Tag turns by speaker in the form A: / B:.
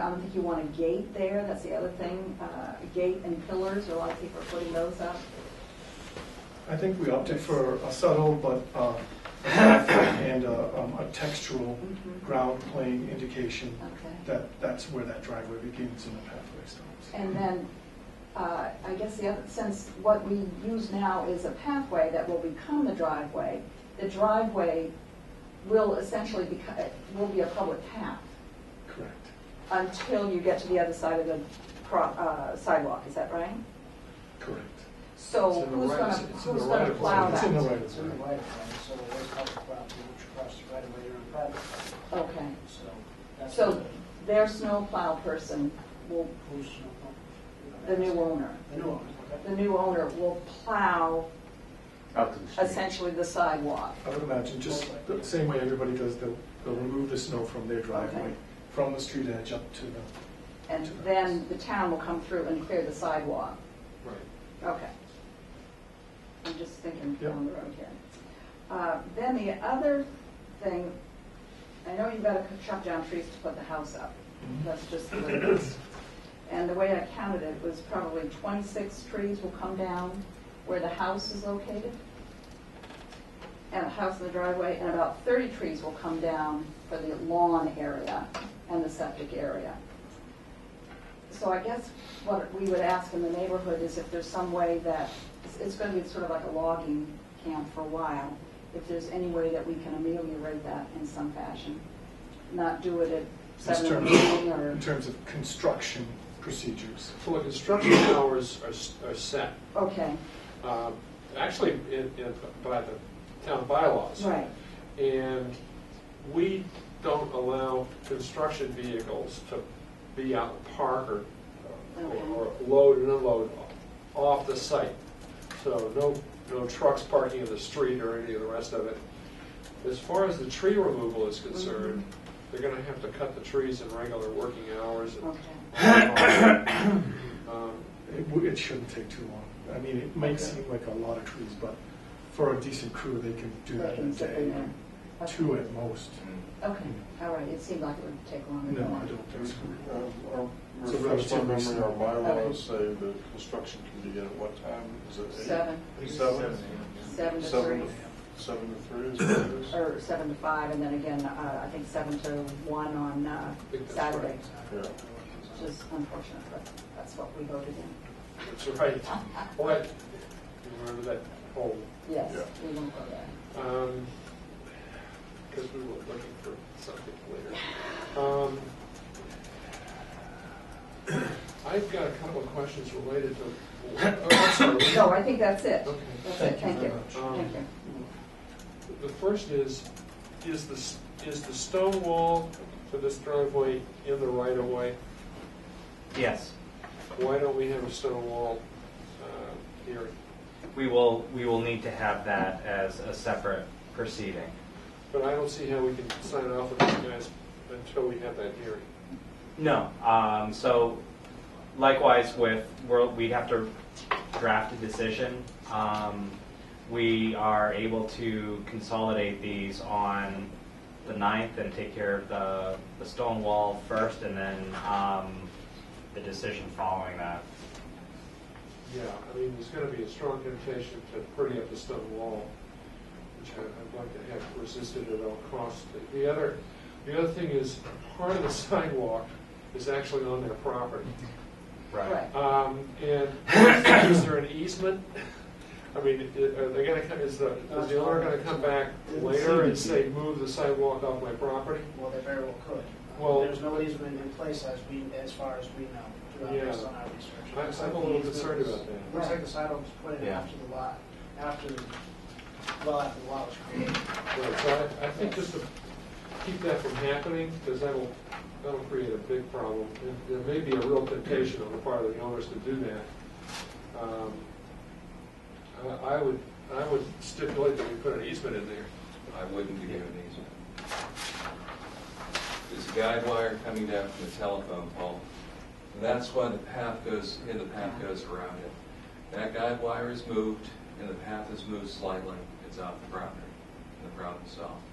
A: I don't think you want a gate there, that's the other thing. Uh, a Gate and pillars, a lot of people are putting those up.
B: I think we opted for a subtle but uh, and a, um, a textural
A: Mhm.
B: ground plane indication
A: Okay.
B: that that's where that driveway begins and the pathway stops.
A: And then, uh, I guess the other, since what we use now is a pathway that will become the driveway, the driveway will essentially become, will be a public path
B: Correct.
A: until you get to the other side of the pro- uh, sidewalk, is that right?
B: Correct.
A: So
C: It's in the
A: who's
C: right-
A: gonna,
C: it's in the
A: who's
C: right
A: gonna
C: of way.
A: plow
B: It's in the
A: that?
B: right
C: It's
B: of
C: in the
B: way.
C: right of way, so it was public property, which across the right of way or in private, property.
A: Okay,
C: so that's.
A: so their snow plow person will,
C: Who's,
A: the new owner,
C: The new one,
A: the
C: okay.
A: new owner will plow
D: Out to the street.
A: essentially the sidewalk.
B: I would imagine just the same way everybody does, they'll, they'll remove the snow from their driveway,
A: Okay.
B: from the street edge up to the,
A: And then the town will come through and clear the sidewalk.
B: right.
A: Okay. I'm just thinking
B: Yep.
A: down the road here. Uh, Then the other thing, I know you've got to chop down trees to put the house up.
B: Mhm.
A: That's just the way it is. And the way I counted it was probably 26 trees will come down where the house is located, and the house in the driveway, and about 30 trees will come down for the lawn area and the septic area. So I guess what we would ask in the neighborhood is if there's some way that, it's- it's going to be sort of like a logging camp for a while, if there's any way that we can ameliorate that in some fashion, not do it at
B: In
A: seven in the
B: terms,
A: morning or.
B: in terms of construction procedures.
E: So the construction hours are s- are set,
A: Okay,
E: um, actually, in- in- by the town bylaws.
A: right,
E: And we don't allow construction vehicles to be out in the park or, or
A: Okay.
E: load and unload off the site. So no, no trucks parking in the street or any of the rest of it. As far as the tree removal is concerned, they're gonna have to cut the trees in regular working hours and
A: Mm-hmm. okay.
E: um,
B: It, w- it shouldn't take too long. I mean, it might seem like a lot of trees, but for a decent crew, they can do that in a day, two at most.
A: Okay, all right, it seemed like it would take longer
B: No,
A: than
B: I
A: that.
B: don't think so. Uh,
F: Um, our-
B: It's a
F: Refresh my
B: relatively
F: memory, our
B: small-
F: bylaws say that construction can begin at what time? Is it eight?
A: Seven,
F: Seven?
A: seven to
F: Seven
A: three,
F: to- Seven to three is what it is?
A: or seven to five, and then again, uh, I think seven to one on uh,
E: think that's
A: Saturday,
F: Yeah.
A: which is unfortunate, but that's what we voted in.
E: That's right. What, remember that whole,
A: Yes,
F: Yeah.
A: we won't go there.
E: um, because we were looking for something later. Um, I've got a couple of questions related to, oh, I'm sorry.
A: No, I think that's it.
E: Okay.
A: That's it, thank you,
E: much.
A: thank you.
E: The first is, is the, s- is the stone wall for this driveway in the right of way?
D: Yes,
E: Why don't we have a stone wall, uh, here?
D: we will, we will need to have that as a separate proceeding.
E: But I don't see how we can sign off on these guys until we have that hearing.
D: No, um, so likewise with, we're- we'd have to draft a decision. Um, We are able to consolidate these on the 9th and take care of the, the stone wall first and then um, the decision following that.
E: Yeah, I mean, there's gonna be a strong temptation to pretty up the stone wall, which I- I'd like to have resisted at all costs. The- The other, the other thing is, part of the sidewalk is actually on their property.
A: Right.
E: Um, and is there an easement? I mean, i- are they gonna come, is the, is the owner gonna come back later and say, move the sidewalk off my property?
C: Well, they very well could.
E: Well-
C: There's no easement in place as we, as far as we know,
E: Yeah.
C: based on our research.
E: I'm-
C: Looks like
E: I'm a little
C: the easement
E: concerned
C: was-
E: about that.
C: Looks like the sidewalk was put in
D: Yeah.
C: after the lot, after, the- well, after the lot was created.
E: Right, So I, I think just to keep that from happening, because that'll, that'll create a big problem. And There may be a real temptation on the part of the owners to do that. Um, I, I would, I would stipulate that we put an easement in there.
G: I wouldn't be given these. There's a guide wire coming down from the telephone pole, and that's why the path goes, here the path goes around it. That guide wire is moved, and the path is moved slightly, it's off the property, and the problem's solved.